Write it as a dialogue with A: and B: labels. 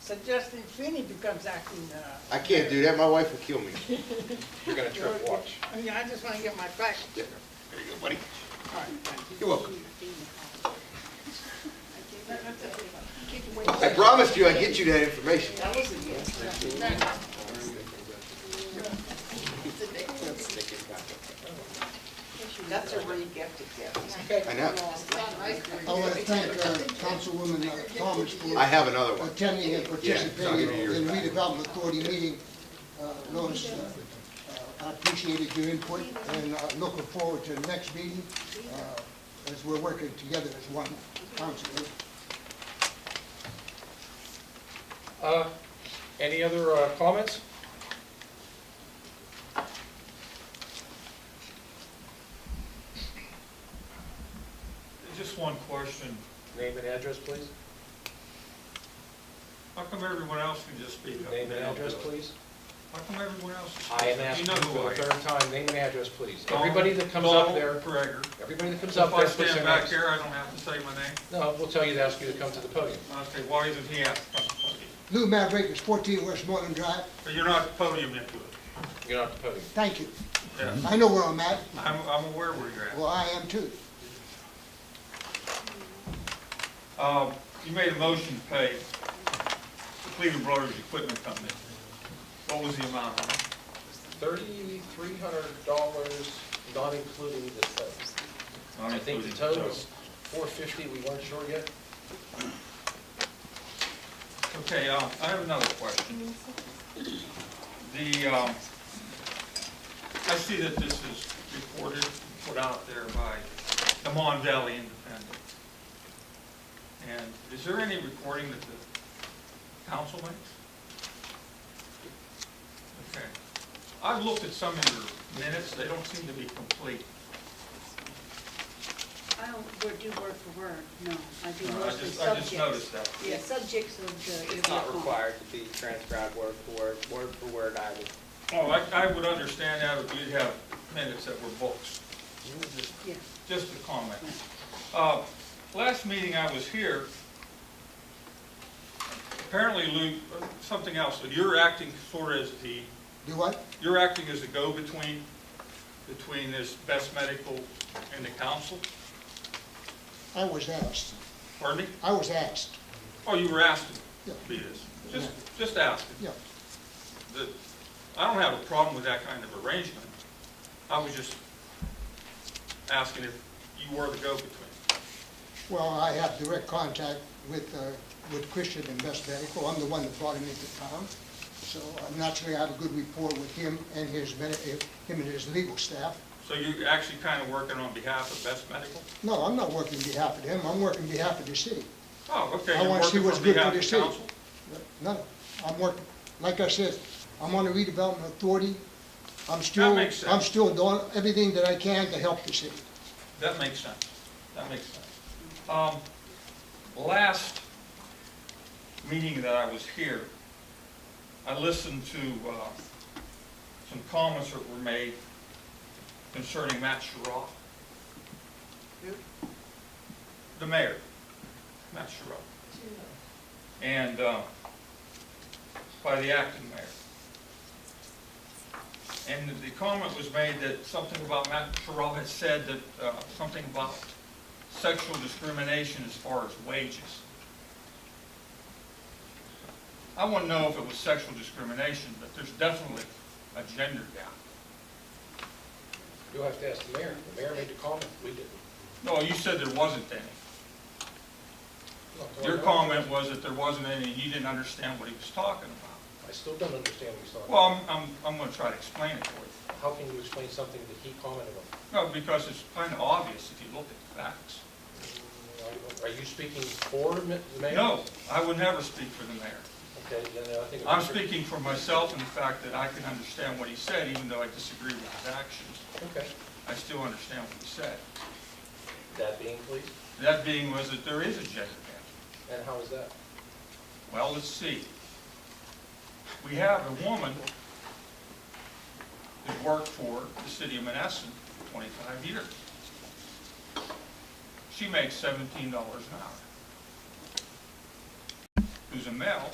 A: suggesting Feeny becomes acting, uh.
B: I can't do that, my wife will kill me.
C: You're gonna trip, watch.
A: I mean, I just wanna get my facts.
B: There you go, buddy.
A: All right, thank you.
B: You're welcome. I promised you I'd get you that information.
D: That's a really gifted gift.
B: I know.
E: I want to thank uh, Councilwoman uh, Thomas
B: I
E: for
B: have another one.
E: attending and
B: Yeah, I'll give you
E: participating
B: yours
E: in
B: back.
E: redevelopment authority meeting. Uh, Lois, uh, uh, I appreciated your input and uh, looking forward to the next meeting uh, as we're working together as one council.
C: Uh, Any other uh, comments?
F: Just one question.
C: Name and address, please.
F: How come everyone else can just speak up?
C: Name and address, please.
F: How come everyone else? is-
C: I am
F: You
C: asking
F: know who
C: for
F: I
C: the
F: am.
C: third time, name and address, please. Everybody that comes up there,
F: Donald Gregor.
C: everybody that comes
F: If
C: up
F: I
C: there, puts
F: stand
C: their
F: back
C: names.
F: here, I don't have to say my name.
C: No, we'll tell you to ask you to come to the podium.
F: I'll say, why isn't he at the podium?
E: Lou Maverick is 14 Westmoreland Drive.
F: But you're not at the podium yet, Lou.
C: You're not at the podium.
E: Thank you.
F: Yeah,
E: I know where I'm at.
F: I'm, I'm aware where you're at.
E: Well, I am too.
F: Um, You made a motion to pay the Cleveland Brothers Equipment Company. What was the amount on it?
C: Thirty-three hundred dollars, not including the tow.
F: Not
C: I think the
F: including
C: tow was four fifty, we weren't sure yet.
F: Okay, uh, I have another question. The, um, I see that this is reported, put out there by the Mon Valley Independent. And is there any recording that the council makes? Okay. I've looked at some of your minutes, they don't seem to be complete.
G: I don't word- do word for word, no. I do
F: I
G: mostly
F: just, I just
G: subjects.
F: noticed that.
G: Yeah, subjects of the.
D: It's not required to be transcribed word for word, word for word, I would.
F: Oh, I, I would understand that if you'd have minutes that were books.
G: Yeah.
F: Just a comment. Uh, Last meeting I was here, apparently Lou, something else, you're acting sort of as the,
E: Do what?
F: you're acting as a go-between between this Best Medical and the council,
E: I was asked.
F: pardon me?
E: I was asked.
F: Oh, you were asked to be this, just, just asking.
E: Yeah.
F: The- I don't have a problem with that kind of arrangement. I was just asking if you were the go-between.
E: Well, I have direct contact with, uh, with Christian and Best Medical. I'm the one that brought him into town. So uh, naturally, I have a good rapport with him and his, medi- uh, him and his legal staff.
F: So you're actually kind of working on behalf of Best Medical?
E: No, I'm not working on behalf of him. I'm working on behalf of the city.
F: Oh, okay,
E: I
F: you're
E: wanna see
F: working
E: what's
F: on
E: good for
F: behalf
E: the
F: of
E: city.
F: council?
E: No, I'm working, like I said, I'm on the redevelopment authority. I'm
F: That
E: still,
F: makes sense.
E: I'm still doing everything that I can to help the city.
F: That makes sense, that makes sense. Um, Last meeting that I was here, I listened to uh, some comments that were made concerning Matt Sherrod. The mayor, Matt Sherrod. And uh, by the acting mayor. And the comment was made that something about, Matt Terrell had said that, uh, something about sexual discrimination as far as wages. I wouldn't know if it was sexual discrimination, but there's definitely a gender gap.
C: You'll have to ask the mayor. The mayor made the comment, we didn't.
F: No, you said there wasn't any.
C: Not that I
F: Your
C: know.
F: comment was that there wasn't any, and you didn't understand what he was talking about.
C: I still don't understand what he's talking
F: Well,
C: about.
F: I'm, I'm, I'm gonna try to explain it for you.
C: How can you explain something that he commented on?
F: No, because it's kind of obvious if you look at the facts.
C: Mm, Are you speaking for the mayor?
F: No, I would never speak for the mayor.
C: Okay, then I think.
F: I'm speaking for myself and the fact that I can understand what he said, even though I disagree with his actions.
C: Okay,
F: I still understand what he said.
C: that being please,
F: That being was that there is a gender gap.
C: and how is that?
F: Well, let's see. We have a woman that worked for the city of Menneson for 25 years. She makes $17 an hour. Who's a male,